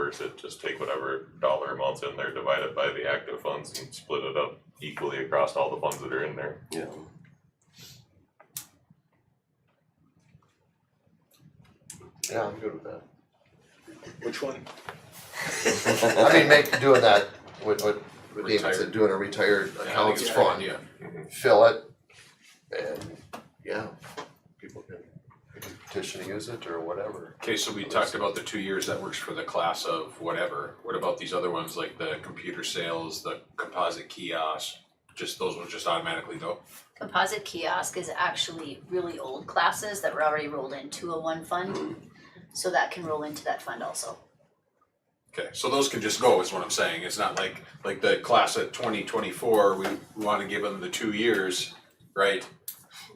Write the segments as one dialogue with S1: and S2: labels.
S1: reverse it, just take whatever dollar amounts in there, divide it by the active funds and split it up equally across all the funds that are in there.
S2: Yeah.
S3: Yeah, I'm good with that.
S4: Which one?
S3: I mean, make, doing that, what, what David said,
S4: Retired.
S3: doing a retired accounts
S4: it's
S3: fund,
S4: yeah.
S3: fill it, and, yeah, people can they can petition to use it or whatever.
S4: Okay, so we talked about the two years, that works for the class of whatever. What about these other ones, like the computer sales, the composite kiosk? Just, those ones just automatically go?
S5: Composite kiosk is actually really old classes that were already rolled into a one fund. So that can roll into that fund also.
S4: Okay, so those can just go, is what I'm saying. It's not like, like the class of twenty twenty-four, we wanna give them the two years, right?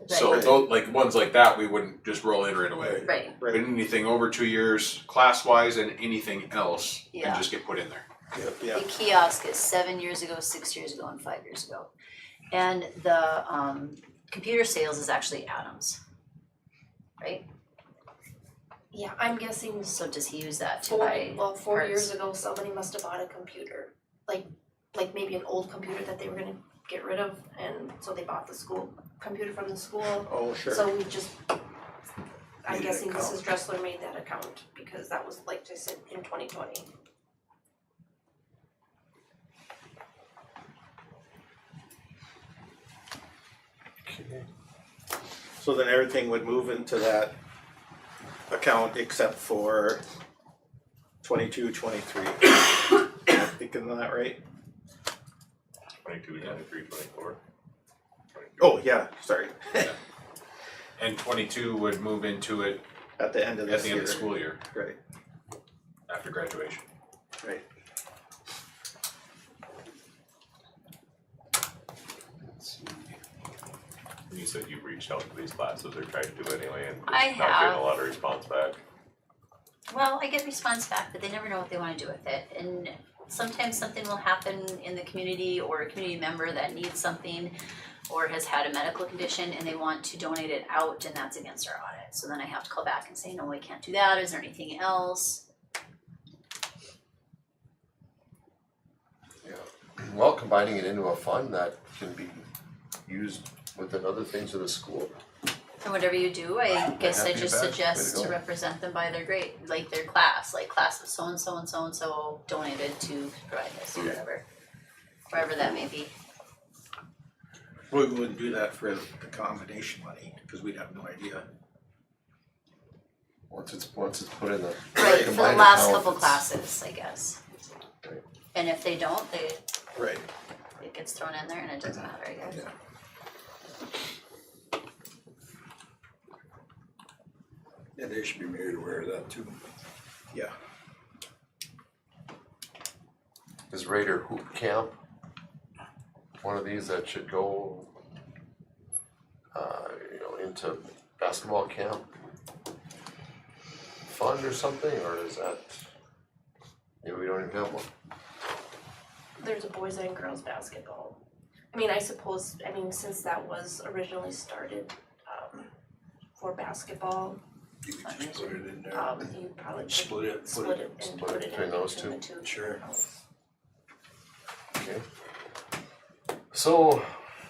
S4: So
S5: Right,
S4: those, like, ones like that, we wouldn't just roll in right away.
S5: right,
S4: But anything over two years, class-wise and anything else, can
S5: Yeah.
S4: just get put in there.
S5: the kiosk is seven years ago, six years ago, and five years ago. And the um computer sales is actually Adams. Right,
S6: Yeah, I'm guessing
S5: so does he use that to
S6: four,
S5: buy?
S6: well, four
S5: parts.
S6: years ago, somebody must have bought a computer, like, like maybe an old computer that they were gonna get rid of, and so they bought the school, computer from the school.
S7: Oh,
S6: So we just, I'm
S7: Made an
S6: guessing
S7: account.
S6: Mrs. Dressler made that account, because that was, like I said, in twenty twenty.
S7: So then everything would move into that account except for twenty-two, twenty-three. Am I Thinking of that right?
S1: Twenty-two, twenty-three, twenty-four.
S7: Oh, yeah, sorry,
S4: And twenty-two would move into it
S7: at the end of
S4: at
S7: this
S4: the
S7: year.
S4: end of the school year,
S7: Right,
S4: after graduation.
S7: right.
S1: And you said you've reached out to these classes or tried to do anyway and
S5: I
S1: just not getting
S5: have.
S1: a lot of response back.
S5: Well, I get response back, but they never know what they wanna do with it, and sometimes something will happen in the community or a community member that needs something or has had a medical condition and they want to donate it out and that's against our audit, so then I have to call back and say, no, we can't do that, is there anything else?
S3: Well, combining it into a fund that can be used within other things of the school.
S5: And whatever you do, I guess I
S3: happy
S5: just
S3: about it. Way
S5: suggest
S3: to
S5: to
S3: go.
S5: represent them by their grade, like their class, like class of so and so and so and so donated to provide this or whatever. Wherever that may be,
S8: Well, we wouldn't do that for the combination money, because we'd have no idea.
S3: Once it's, once it's put in the
S5: right, for the
S3: combined
S5: last
S3: account,
S5: couple
S3: it's-
S5: classes, I guess.
S3: Right.
S5: And if they don't, they
S7: Right.
S5: it gets thrown in there and it doesn't matter, I guess.
S8: Yeah, they should be made aware of that too.
S7: Yeah,
S3: Is Raider Hoop Camp one of these that should go, uh, you know, into basketball camp fund or something, or is that, maybe we don't even have one?
S6: There's a boys and girls basketball. I mean, I suppose, I mean, since that was originally started, um, for basketball,
S8: You could just put it in there,
S6: um, you probably could
S8: split it, put
S6: split
S8: it,
S6: it and
S3: split it
S6: put it in
S3: between those
S6: between the two.
S8: Sure.
S3: Okay. So,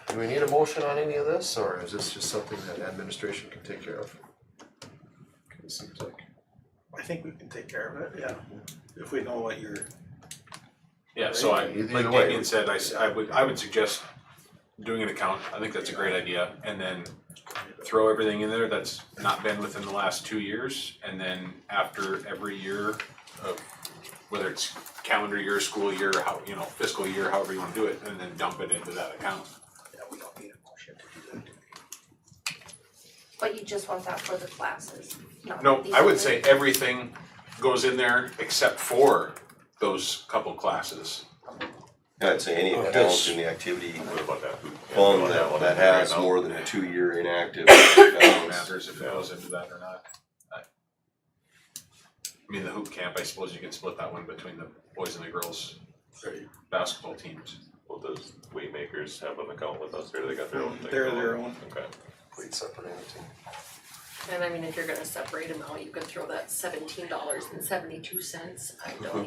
S3: do we need a motion on any of this, or is this just something that administration can take care of? It seems like.
S7: I think we can take care of it, yeah, if we know what you're,
S4: Yeah, so I,
S3: Either
S4: like
S3: way.
S4: Damien said, I, s- I would, I would suggest doing an account, I think that's a great idea, and then throw everything in there that's not been within the last two years, and then after every year of, whether it's calendar year, school year, how, you know, fiscal year, however you wanna do it, and then dump it into that account.
S8: yeah, we don't need a motion to do that.
S6: But you just want that for the classes, not
S4: No,
S6: these
S4: I would
S6: other-
S4: say everything goes in there except for those couple classes.
S9: I'd say any
S8: Oh,
S9: account
S8: that's-
S9: in the activity
S1: What about that? Who- yeah, what
S9: fund
S1: about
S9: that,
S1: one?
S9: that
S1: Figure it
S9: has
S1: out.
S9: more than a two-year inactive uh,
S4: It
S9: balance.
S4: matters if it goes into that or not. I I mean, the hoop camp, I suppose you can split that one between the boys and the girls basketball teams.
S1: Well, does Waymakers have an account with us or they got their own thing?
S7: They're their own.
S1: Okay.
S3: Complete separate entity.
S10: And I mean, if you're gonna separate them out, you could throw that seventeen dollars and seventy-two cents, I don't